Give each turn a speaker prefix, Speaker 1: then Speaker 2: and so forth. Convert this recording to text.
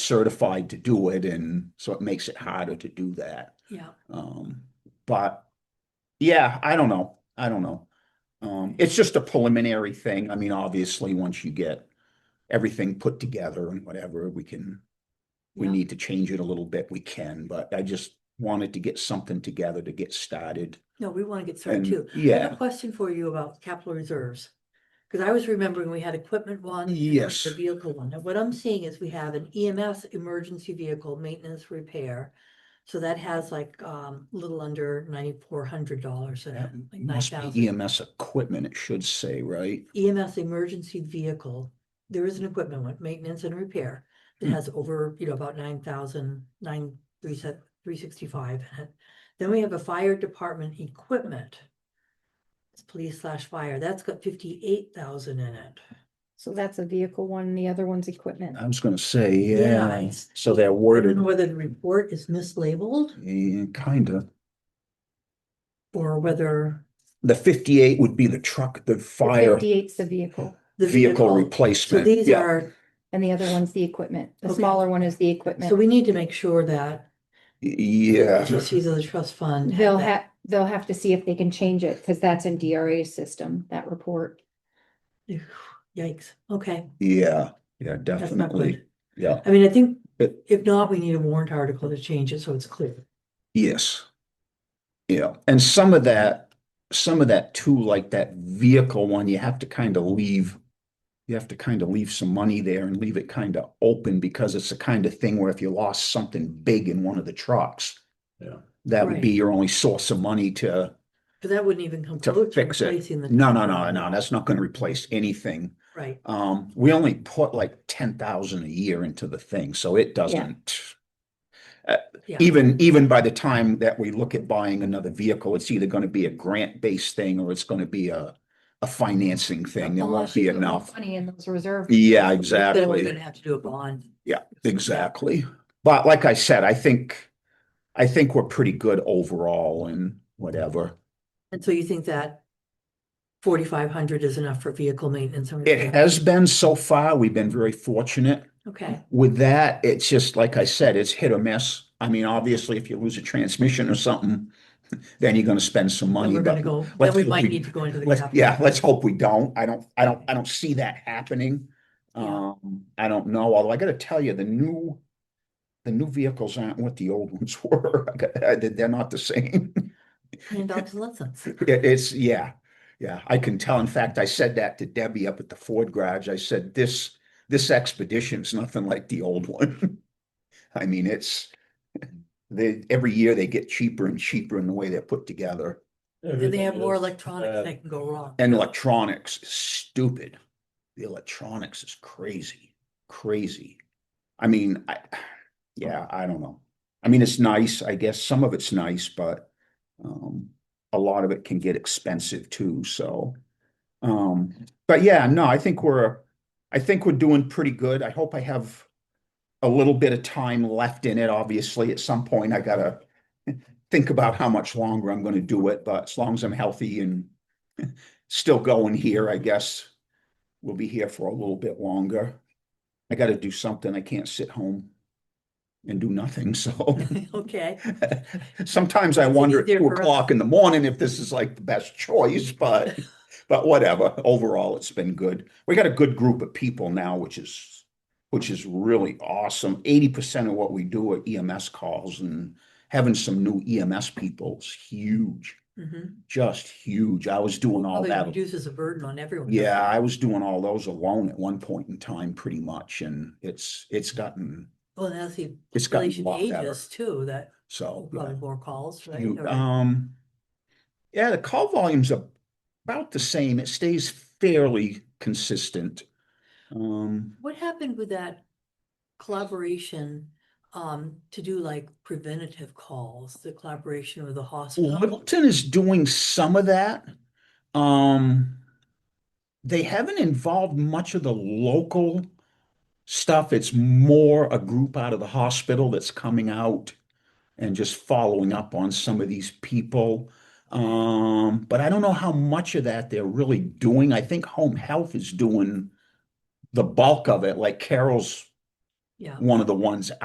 Speaker 1: certified to do it, and so it makes it harder to do that.
Speaker 2: yeah.
Speaker 1: Um, but yeah, I don't know. I don't know. Um, it's just a preliminary thing. I mean, obviously, once you get everything put together and whatever, we can, we
Speaker 2: Yeah.
Speaker 1: need to change it a little bit, we can, but I just wanted to get something together to get started.
Speaker 2: No, we want to get started
Speaker 1: And
Speaker 2: too. I have
Speaker 1: yeah,
Speaker 2: a question for you about capital reserves. Because I was remembering we had equipment one. and we had
Speaker 1: Yes.
Speaker 2: The vehicle one. Now, what I'm seeing is we have an EMS emergency vehicle maintenance repair. So that has like um a little under ninety-four hundred dollars in it,
Speaker 1: that
Speaker 2: like nine
Speaker 1: must
Speaker 2: thousand.
Speaker 1: be EMS equipment, it should say, right?
Speaker 2: EMS E emergency vehicle, there is an equipment one, maintenance and repair, that
Speaker 1: Hmm.
Speaker 2: has over, you know, about nine thousand, nine, three set, three sixty-five in it. Then we have a fire department equipment. It's police slash fire, that's got fifty-eight thousand in it.
Speaker 3: So that's a vehicle one, and the other one's equipment.
Speaker 1: I was gonna say,
Speaker 2: Yeah,
Speaker 1: yeah,
Speaker 2: it's-
Speaker 1: so they're
Speaker 2: I don't
Speaker 1: worded,
Speaker 2: know whether the report is mislabeled
Speaker 1: eh, kinda.
Speaker 2: or whether
Speaker 1: The fifty-eight would be the truck, the fire
Speaker 3: Fifty-eight's the vehicle
Speaker 2: the
Speaker 1: vehicle
Speaker 2: vehicle. So
Speaker 1: replacement.
Speaker 2: these
Speaker 1: Yeah.
Speaker 2: are,
Speaker 3: and the other one's the equipment. The
Speaker 2: Okay.
Speaker 3: smaller one is the
Speaker 2: so
Speaker 3: equipment.
Speaker 2: we need to make sure that
Speaker 1: Yeah,
Speaker 2: trustees of the trust fund. have
Speaker 3: They'll
Speaker 2: that.
Speaker 3: have, they'll have to see if they can change it because that's in DRA's system, that report.
Speaker 2: Yikes, okay,
Speaker 1: yeah, yeah,
Speaker 2: that's not
Speaker 1: definitely.
Speaker 2: good.
Speaker 1: Yeah,
Speaker 2: I mean, I think
Speaker 1: But-
Speaker 2: if not, we need a warrant article to change it so it's clear.
Speaker 1: yes. Yeah, and some of that, some of that too, like that vehicle one, you have to kind of leave. You have to kind of leave some money there and leave it kind of open because it's the kind of thing where if you lost something big in one of the trucks.
Speaker 4: Yeah.
Speaker 1: That would be
Speaker 2: Right.
Speaker 1: your only source of money to,
Speaker 2: But that wouldn't even come
Speaker 1: To
Speaker 2: close to
Speaker 1: fix it.
Speaker 2: replacing the.
Speaker 1: no, no, no, no, that's not gonna replace anything.
Speaker 2: Right,
Speaker 1: Um, we only put like ten thousand a year into the thing, so it doesn't.
Speaker 2: yeah.
Speaker 1: even even by the time that we look at buying another vehicle, it's either going to be a grant-based thing or it's going to be a a financing thing. There won't
Speaker 3: Unless you
Speaker 1: be
Speaker 3: put more
Speaker 1: enough.
Speaker 3: Money in those reserve.
Speaker 1: Yeah,
Speaker 2: Then we're
Speaker 1: exactly,
Speaker 2: gonna have to do a bond.
Speaker 1: Yeah, exactly. But like I said, I think I think we're pretty good overall and whatever.
Speaker 2: And so you think that forty-five hundred is enough for vehicle maintenance? and
Speaker 1: It
Speaker 2: repair?
Speaker 1: has been so far. We've been very fortunate.
Speaker 2: Okay,
Speaker 1: With that, it's just like I said, it's hit or miss. I mean, obviously, if you lose a transmission or something, then you're going to spend some
Speaker 2: then
Speaker 1: money.
Speaker 2: we're gonna
Speaker 1: But
Speaker 2: go, then
Speaker 1: let's
Speaker 2: we
Speaker 1: hope
Speaker 2: might
Speaker 1: we-
Speaker 2: need to go into the.
Speaker 1: Let's,
Speaker 2: capital.
Speaker 1: yeah, let's hope we don't. I don't, I don't, I don't see that happening.
Speaker 2: Yeah.
Speaker 1: Um, I don't know, although I gotta tell you, the new, the new vehicles aren't what the old ones were. I got- I- They're not the same.
Speaker 2: Million dollars in lessons.
Speaker 1: It- It's, yeah, yeah, I can tell. In fact, I said that to Debbie up at the Ford garage. I said, this, this expedition's nothing like the old one. I mean, it's, they, every year they get cheaper and cheaper in the way they're put together.
Speaker 2: And they have more
Speaker 4: electronics.
Speaker 1: Uh,
Speaker 2: electronics that can go wrong.
Speaker 1: And electronics is stupid. The electronics is crazy, crazy. I mean, I, yeah, I don't know. I mean, it's nice, I guess. Some of it's nice, but um, a lot of it can get expensive too. So, um, but yeah, no, I think we're, I think we're doing pretty good. I hope I have a little bit of time left in it. Obviously, at some point, I gotta think about how much longer I'm going to do it. But as long as I'm healthy and still going here, I guess. We'll be here for a little bit longer. I gotta do something. I can't sit home and do nothing, so.
Speaker 2: Okay,
Speaker 1: Sometimes I wonder at
Speaker 2: easier
Speaker 1: two
Speaker 2: for us.
Speaker 1: o'clock in the morning if this is like the best choice, but, but whatever. Overall, it's been good. We got a good group of people now, which is, which is really awesome. Eighty percent of what we do are EMS calls and having some new EMS people is huge,
Speaker 2: mhm.
Speaker 1: just huge. I was doing all
Speaker 2: Although it
Speaker 1: that.
Speaker 2: reduces a burden on everyone. doesn't
Speaker 1: Yeah,
Speaker 2: it?
Speaker 1: I was doing all those alone at one point in time, pretty much, and it's, it's gotten,
Speaker 2: Well, and that's the
Speaker 1: it's gotten a
Speaker 2: relation
Speaker 1: lot better,
Speaker 2: ages too, that
Speaker 1: so. yeah.
Speaker 2: probably more calls, right?
Speaker 1: You,
Speaker 2: Or-
Speaker 1: um, yeah, the call volume's ab- about the same. It stays fairly consistent. Um,
Speaker 2: What happened with that collaboration um to do like preventative calls, the collaboration with the hospital?
Speaker 1: Littleton is doing some of that. Um, they haven't involved much of the local stuff. It's more a group out of the hospital that's coming out and just following up on some of these people. Um, but I don't know how much of that they're really doing. I think home health is doing the bulk of it, like Carol's
Speaker 2: yeah.
Speaker 1: one of the ones